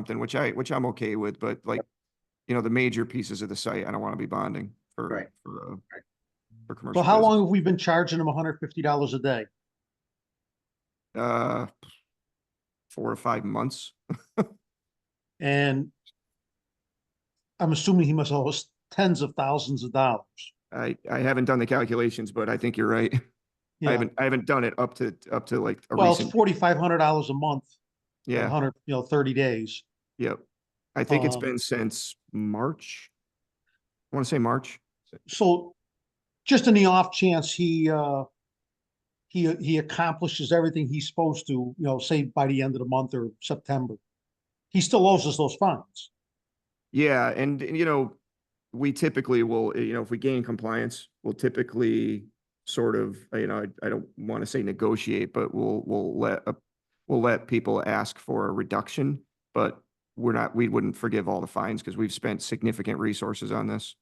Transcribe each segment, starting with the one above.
something, which I, which I'm okay with, but like, you know, the major pieces of the site, I don't want to be bonding Right. for, for, uh, for commercial. So how business. long have we been charging them hundred fifty dollars a day? Uh, four or five months. And I'm assuming he must owe us tens of thousands of dollars. I, I haven't done the calculations, but I think you're right. I Yeah. haven't, I haven't done it up to, up to like a Well, uh-huh. it's recent, forty-five hundred dollars a month, a yeah, hundred, you know, thirty days. yep. I think it's Um, been since March. I want to say March. So just in the off chance he, uh, he, he accomplishes everything he's supposed to, you know, say by the end of the month or September, he still owes us those fines. Yeah, and and, you know, we typically will, you know, if we gain compliance, we'll typically sort of, you know, I, I don't want to say negotiate, but we'll, we'll let, a- we'll let people ask for a reduction, but we're not, we wouldn't forgive all the fines because we've spent significant resources on this,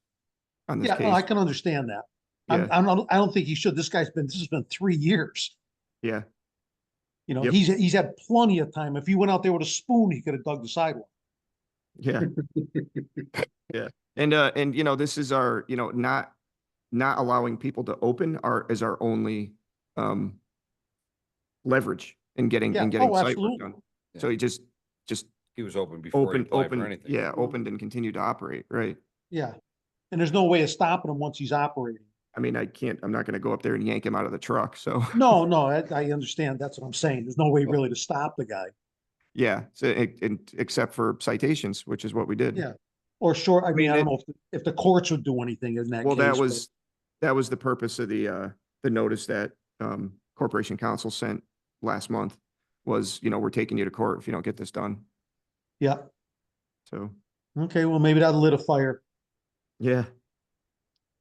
on this Yeah, no, I case. can understand that. Yeah, I'm, I'm, not- I don't think he should. This guy's been, this has been three years. yeah, You know, Yep. he's, he's had plenty of time. If he went out there with a spoon, he could have dug the sidewalk. yeah. And, uh, and you know, this is our, you know, not, not allowing people to open our, is our only, um, leverage in getting, Yeah, in getting oh, site work absolutely. done. So you just, just He was open before he open, applied for open, anything. yeah, opened and continued to operate, right? Yeah. And there's no way of stopping him once he's operating. I mean, I can't, I'm not gonna go up there and yank him out of the truck, so, No, no, I, I understand. That's what I'm saying. There's no way really to stop the guy. yeah, so, e- and, except for citations, which is what we did. Yeah. Or sure, I mean, mean, I it- don't know if, if the courts would do anything in that case. Well, that but- was, that was the purpose of the, uh, the notice that, um, Corporation Council sent last month was, you know, we're taking you to court if you don't get this done, Yeah. so. Okay, well, maybe that lit a fire. Yeah.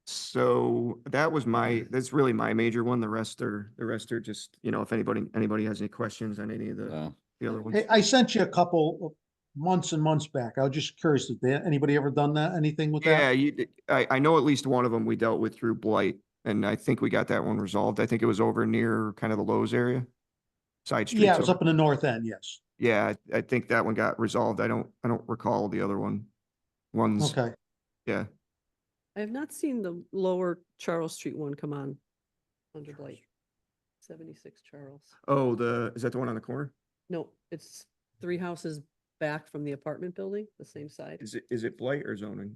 So that was my, that's really my major one. The rest are, the rest are just, you know, if anybody, anybody has any questions on any of the, Uh, the other ones. Hey, I sent you a couple of months and months back. I was just curious, did that- anybody ever done that, anything with Yeah, that? you, d- I, I know at least one of them we dealt with through blight and I think we got that one resolved. I think it was over near kind of the Lowe's area. Side Yeah, it streets. was over- up in the north end, yes. Yeah, I, I think that one got resolved. I don't, I don't recall the other one. Ones, Okay. yeah. I have not seen the lower Charles Street one come on under Blight. Seventy-six Charles. Oh, the, is that the one on the corner? No, it's three houses back from the apartment building, the same side. Is it, is it blight or zoning?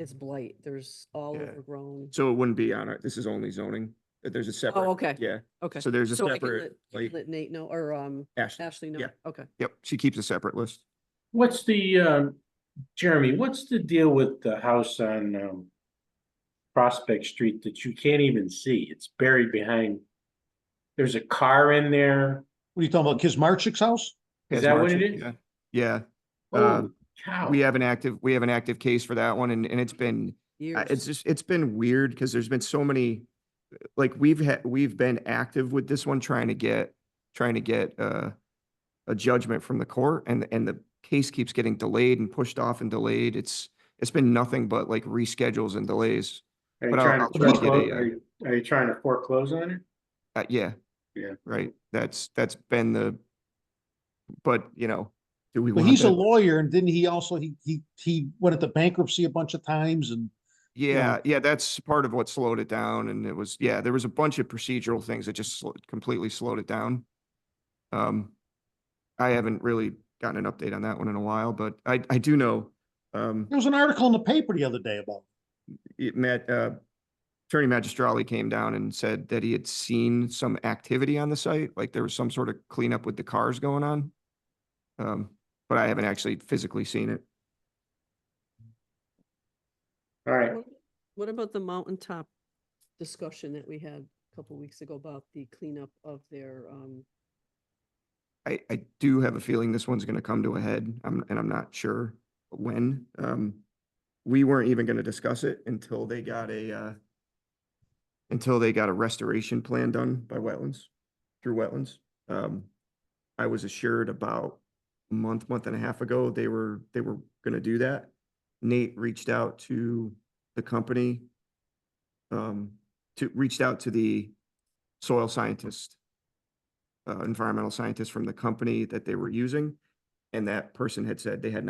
It's Blight. There's all Yeah. overgrown. So it wouldn't be on our, this is only zoning. uh, There's a separate. okay. Yeah. Okay. So there's a I can separate, let- I can like, Let Nate know, or um, Ash, Ashley know. yeah. Uh, Okay. yep, she keeps a separate list. What's the, um, Jeremy, what's the deal with the house on, um, Prospect Street that you can't even see? It's buried behind, there's a car in there. What are you talking about, Kismarchik's house? Yes, Is that what Marcia, it is? yeah. Yeah, Uh, Holy cow. we have an active, we have an active case for that one and, and it's been, I- Years. it's just, it's been weird because there's been so many, like, we've had, we've been active with this one, trying to get, trying to get, uh, a judgment from the court and, and the case keeps getting delayed and pushed off and delayed. It's, it's been nothing but like reschedules and delays. Are you but I'll- trying I'll to try to get foreclose- a, uh, are you- are you trying to foreclose on it? Uh, yeah. Yeah. Right. That's, that's been the, but, you know, do we But want he's a that? lawyer and didn't he also, he, he, he went into bankruptcy a bunch of times and Yeah, yeah, that's part of what slowed it down and it was, yeah, there was a bunch of procedural things that just sl- completely slowed it down. Um, I haven't really gotten an update on that one in a while, but I, I do know, um, there was an article in the paper the other day about. it. it met, uh, Attorney Magistrali came down and said that he had seen some activity on the site, like there was some sort of cleanup with the cars going on. Um, but I haven't actually physically seen it. All right, What- What about the mountaintop discussion that we had a couple weeks ago about the cleanup of their um, I, I do have a feeling this one's gonna come to a head, I'm, and I'm not sure when. Um, we weren't even gonna discuss it until they got a, uh, until they got a restoration plan done by wetlands, through wetlands. Um, I was assured about a month, month and a half ago, they were, they were gonna do that. Nate reached out to the company, um, to, reached out to the soil scientist uh, environmental scientists from the company that they were using. And that person had said they had